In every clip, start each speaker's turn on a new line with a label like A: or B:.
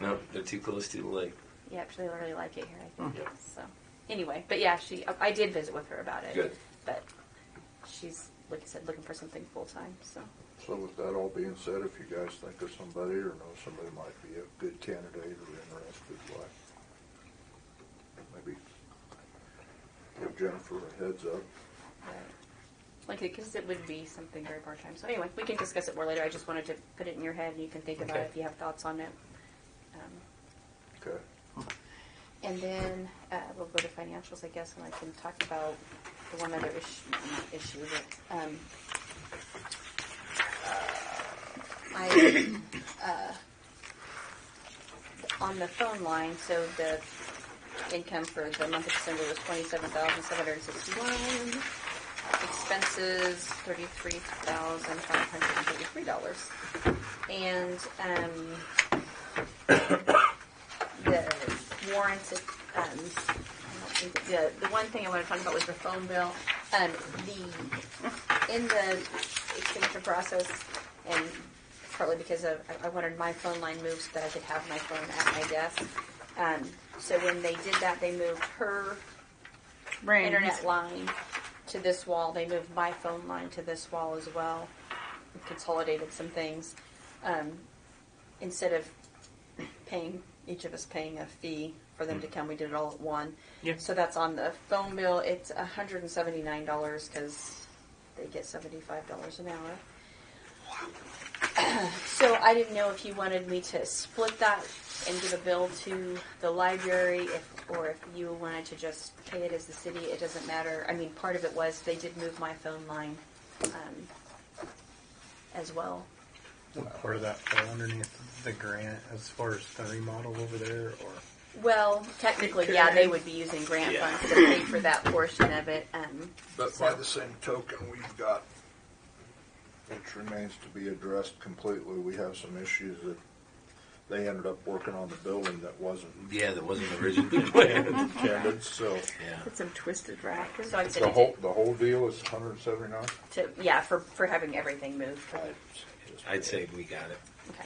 A: No, they're too close to the lake.
B: Yeah, actually, they really like it here. I think
A: Yeah.
B: so. Anyway, but yeah, she. I did visit with her about it.
A: Good.
B: But she's like I said, looking for something full time. So
C: So with that all being said, if you guys think of somebody or know somebody might be a good candidate or interested, like, maybe give Jennifer a heads up.
B: right. like because it would be something very part time. So anyway, we can discuss it more later. I just wanted to put it in your head, and you can think about
A: Okay.
B: it if you have thoughts on it. Um,
C: Okay,
B: And then uh, we'll go to financials, I guess, and I can talk about the one other issue, not issue, but um, I uh, on the phone line. So the income for the month of December was twenty-seven thousand seven hundred sixty-one. Expenses thirty-three thousand five hundred thirty-three dollars, and. Um, the warrants, um, I don't think- the, the one thing I want to talk about was the phone bill. Um, the, in the expenditure process, and partly because of, I, I wanted my phone line moved so that I could have my phone at my desk. Um, so when they did that, they moved her
D: Brand.
B: internet line to this wall. They moved my phone line to this wall as well. We consolidated some things. Um, instead of paying each of us paying a fee for them to come, we did it all at one.
D: Yeah.
B: So that's on the phone bill. It's hundred and seventy nine dollars because they get seventy five dollars an hour. So I didn't know if you wanted me to split that and give a bill to the library, if, or if you wanted to just pay it as the city, it doesn't matter. I mean, part of it was, they did move my phone line, um, as well.
E: What part of that fell underneath the grant as far as the remodel over there or?
B: Well, technically, yeah, they would be using grant
A: Yeah.
B: funds to pay for that portion of it, um,
F: But by the same token, we've got,
C: which remains to be addressed completely. We have some issues that they ended up working on the building that wasn't
A: Yeah, that wasn't originally planned.
C: intended, so.
A: yeah.
D: Put some twisted rackets.
B: so I
C: The
B: said,
C: whole, the whole deal is hundred and seventy-nine?
B: to, yeah, for, for having everything moved.
A: I'd say we got it.
B: Okay.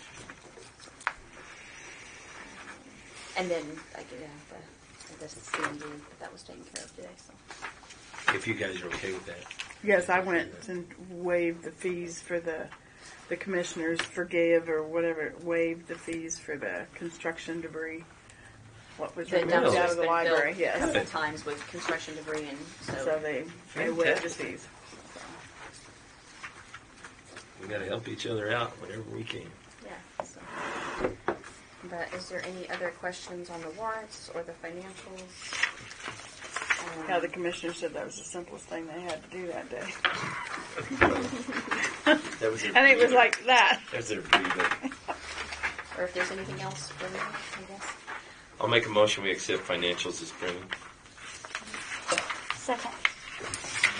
B: And then I could have the, the CMD, but that was taken care of today, so.
A: If you guys are okay with that.
D: Yes, I went and waived the fees for the the commissioners forgave or whatever waived the fees for the construction debris. What was
B: The
D: removed
B: dumpster's
D: out of the
B: been
D: library?
B: filled A
D: Yes,
B: couple times with construction debris and
D: so
B: so,
D: they they waived the
A: Fantastic.
D: fees.
A: We got to help each other out whenever we can.
B: yeah, so. But is there any other questions on the warrants or the financials? Um,
D: Yeah, the commissioner said that was the simplest thing they had to do that day.
A: That was their
D: And it was
A: breather.
D: like that.
A: That's their breather.
B: Or if there's anything else for me, I guess.
A: I'll make a motion we accept financials as printed.
D: Second.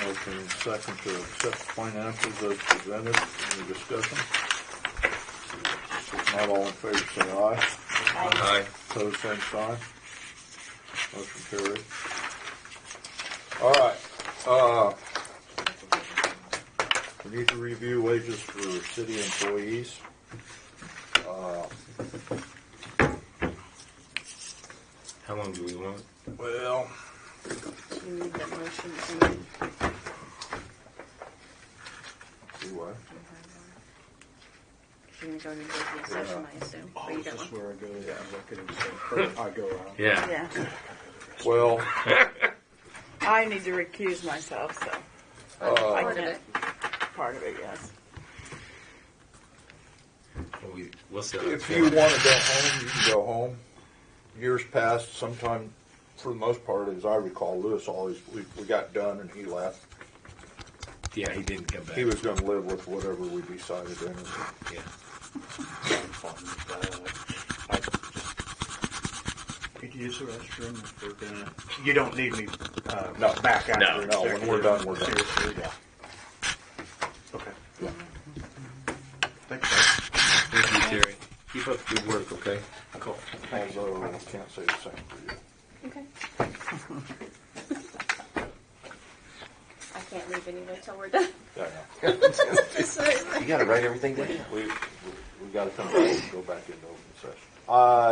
C: Motion and second to accept financials as presented. Any discussion? If Not all in favor, say aye.
A: Aye.
C: Pose same sign. Motion carried. All right, uh, we need to review wages for city employees. Uh,
A: How long do we want?
C: well,
B: You need that motion and
C: see what?
B: you're gonna go into executive session, I assume, or you
F: this
B: don't
F: is
B: want?
F: Oh, where I go to the executive, I go out.
A: Yeah.
D: Yeah,
C: Well,
D: I need to recuse myself. So
B: Oh,
D: I
B: part of
D: can't-
B: it.
D: part of it, yes.
A: Well, we, we'll set up
C: If
A: for
C: you want
A: it.
C: to go home, you can go home. Years passed, sometime, for the most part, as I recall, Lewis always, we, we got done and he left.
A: Yeah, he didn't come back.
C: He was gonna live with whatever we decided in it.
A: Yeah.
F: Could you use the restroom if we're gonna, you don't need me, uh,
C: No.
F: back after.
A: No,
C: no, when we're
F: executive.
C: done, we're done.
F: Seriously, yeah. Okay. Thanks, guys.
A: Thank you, Terry. Keep up the good work, okay?
F: Cool. Thank you.
C: Although, I can't say the same for you.
B: Okay. I can't leave anyway till we're done.
C: Yeah,
B: Sorry.
G: You gotta write everything down.
C: We, we- we gotta come back, go back into open session. Uh,